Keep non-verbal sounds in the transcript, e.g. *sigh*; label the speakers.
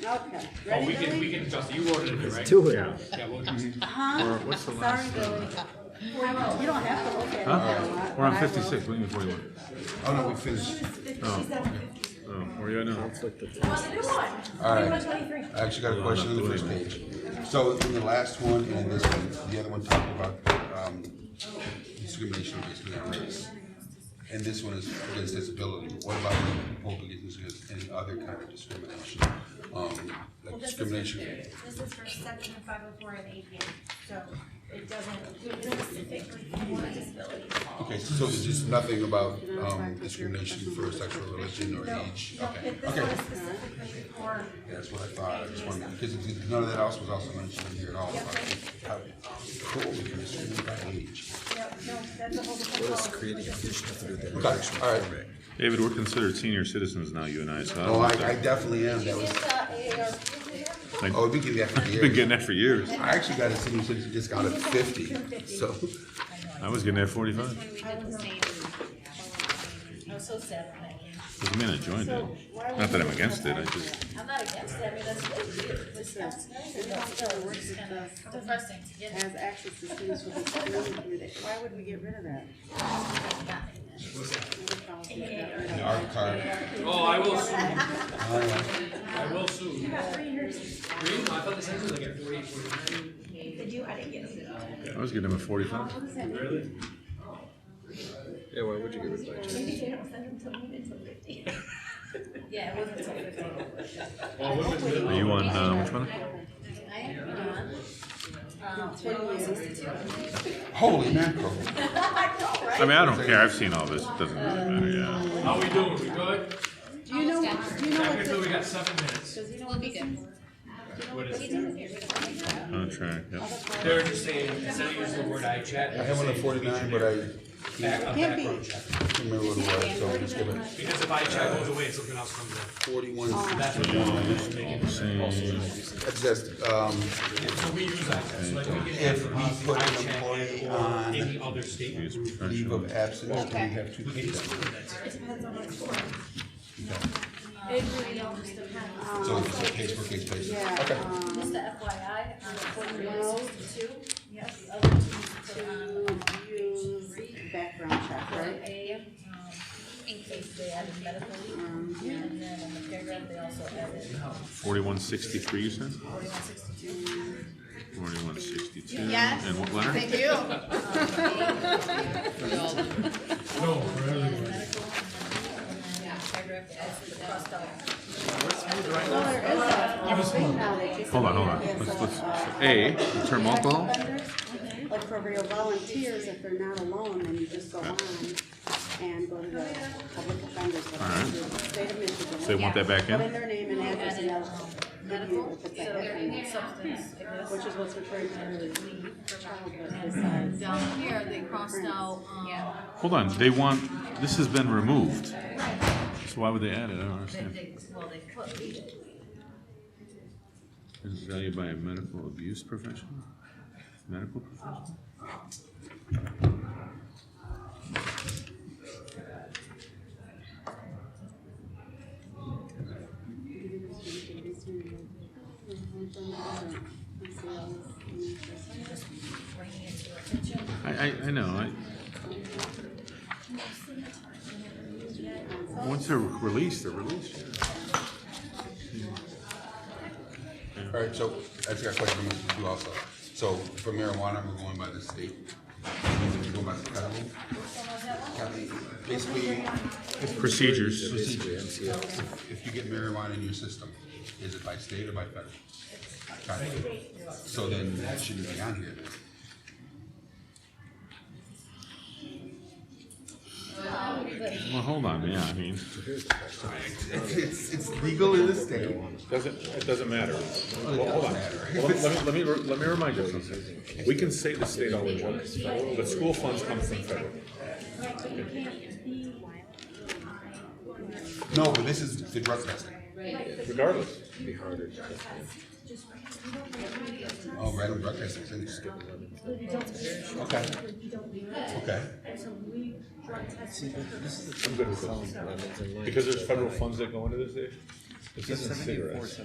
Speaker 1: Okay,
Speaker 2: Oh,
Speaker 1: ready,
Speaker 2: we can, we
Speaker 1: Billy?
Speaker 2: can adjust, it. you ordered it, right?
Speaker 3: do it.
Speaker 2: Yeah, we'll adjust. it.
Speaker 1: Huh?
Speaker 4: What's the
Speaker 1: Sorry,
Speaker 4: last?
Speaker 1: Billy. You don't have to look at it.
Speaker 4: Huh?
Speaker 1: Bill,
Speaker 4: We're on
Speaker 1: but I will.
Speaker 4: fifty-six, what do you mean forty-one?
Speaker 5: Oh, no, we finished.
Speaker 4: Oh, where are you at now?
Speaker 5: All right. I actually got a question on the first page. So in the last one and in this one, the other one talked about um, discrimination based on race. And this one is against disability. What about when people against disability and other kind of discrimination? Um,
Speaker 6: Well,
Speaker 5: Like
Speaker 6: this is for-
Speaker 5: discrimination,
Speaker 6: This is for section five oh four and APA, so it doesn't specifically for disability.
Speaker 5: okay, so there's just nothing about um, discrimination for sexual religion or age?
Speaker 6: No,
Speaker 5: Okay,
Speaker 6: it- this one
Speaker 5: okay.
Speaker 6: is specifically for,
Speaker 5: That's what I thought, I just wanted, because it- none of that else was also mentioned in here at all. about how- Cool, we can discriminate by age.
Speaker 6: no, no, that's a whole different policy.
Speaker 5: Okay, all right.
Speaker 4: David, we're considered senior citizens now, you and I, so. I don't
Speaker 5: Oh, I,
Speaker 4: know.
Speaker 5: I definitely am, that was,
Speaker 7: Um,
Speaker 5: oh, we can get that for
Speaker 4: Been
Speaker 5: years.
Speaker 4: getting that for years.
Speaker 5: I actually got a senior citizen discount at fifty, so,
Speaker 4: I was getting that forty-five.
Speaker 7: I was so sad when that came.
Speaker 4: Doesn't mean I joined it. Not that I'm against it, I just,
Speaker 7: I'm not against it, I mean, that's what we do, it's, that's nice, and it's still, it's kind of depressing to get it.
Speaker 1: Has access to students with disabilities committee. Why would we get rid of that?
Speaker 5: the art card.
Speaker 2: Oh, I will sue. I will sue. You Three? I thought the census was like at forty, forty-nine.
Speaker 6: They do, I didn't get it.
Speaker 4: I was getting them at forty-five.
Speaker 2: Really?
Speaker 3: Yeah, why would you get rid of that?
Speaker 6: Maybe they don't send them to me until fifty.
Speaker 7: Yeah, it wasn't so good.
Speaker 2: Well, what was the-
Speaker 4: Are you on, uh, which one?
Speaker 7: I am on,
Speaker 6: *laughs*
Speaker 7: um,
Speaker 1: Twenty years.
Speaker 5: Holy mackerel.
Speaker 4: I mean, I don't care, I've seen all this, it doesn't really matter, yeah.
Speaker 2: How we doing, we good?
Speaker 1: Do you know, do you know
Speaker 2: I
Speaker 1: what
Speaker 2: feel we
Speaker 1: the,
Speaker 2: got seven minutes.
Speaker 7: we'll be good.
Speaker 2: What is it?
Speaker 4: Contract, yeah.
Speaker 2: They're just saying, instead of using the word I chat.
Speaker 5: I have one at forty-nine, but I
Speaker 2: Back on
Speaker 1: Can't be.
Speaker 2: background check.
Speaker 5: can't remember what it was, so I'm just gonna,
Speaker 2: Because if I chat goes away, something else comes in.
Speaker 5: forty-one,
Speaker 2: That's what
Speaker 5: that's just, um,
Speaker 2: So we use I chat, so like we can
Speaker 5: If
Speaker 2: have
Speaker 5: we put an
Speaker 2: I
Speaker 5: employee
Speaker 2: chat or
Speaker 5: on-
Speaker 2: any other statement.
Speaker 4: Use
Speaker 5: leave
Speaker 4: professional.
Speaker 5: of absence, can we have two pages?
Speaker 6: It really all just depends.
Speaker 5: So it's a case per case basis. Okay.
Speaker 1: yeah, um,
Speaker 7: Just the FYI, on forty-one sixty-two,
Speaker 6: Yes.
Speaker 7: the other two put on
Speaker 1: um, to use background check,
Speaker 7: Right.
Speaker 1: right?
Speaker 7: A, um, in case they added medical leave, and then in the paragraph, they also added
Speaker 4: Forty-one sixty-three, you said?
Speaker 7: forty-one sixty-two.
Speaker 4: Forty-one sixty-two. And what letter?
Speaker 7: Thank you.
Speaker 2: No, really.
Speaker 1: Well, there is a- a thing now that you can.
Speaker 4: Hold on, hold on.
Speaker 1: Yeah,
Speaker 4: Let's,
Speaker 1: so,
Speaker 4: let's,
Speaker 1: uh,
Speaker 4: A, the term alcohol,
Speaker 1: offenders, Like for real volunteers, if they're not alone, then you just go on and go to the public offenders. website, State of Michigan.
Speaker 4: so they want that back
Speaker 1: Put in
Speaker 4: in?
Speaker 1: their name and address and they'll give you if it's that
Speaker 7: Medical,
Speaker 1: definition,
Speaker 7: substance abuse.
Speaker 1: which is what's referred to earlier. Childhood suicide.
Speaker 8: Down here, they crossed out, um,
Speaker 4: Hold on, they want, this has been removed. So why would they add it? I don't understand.
Speaker 8: they, well, they put,
Speaker 4: Is valued by a medical abuse professional? Medical professional? I, I, I know, I. Once they're released, they're released.
Speaker 5: All right, so I just got a question for you also. So for marijuana, we're going by the state. We're going by the county. County, Basically,
Speaker 4: Procedures.
Speaker 5: basically, if if you get marijuana in your system, is it by state or by federal? County. So then that shouldn't be on here.
Speaker 4: Well, hold on, yeah, I mean.
Speaker 5: It's, it's legal in the state.
Speaker 4: Doesn't, it doesn't matter. Well, hold on. Well, Let let me, let me, re- let me remind you of something. We can say the state all we want, but school funds come from federal.
Speaker 5: No, but this is the drug testing.
Speaker 4: Regardless,
Speaker 5: Oh, random drug testing, it's interesting. Okay. Okay.
Speaker 4: I'm good with this. Because there's federal funds that go into this issue. This isn't cigarettes.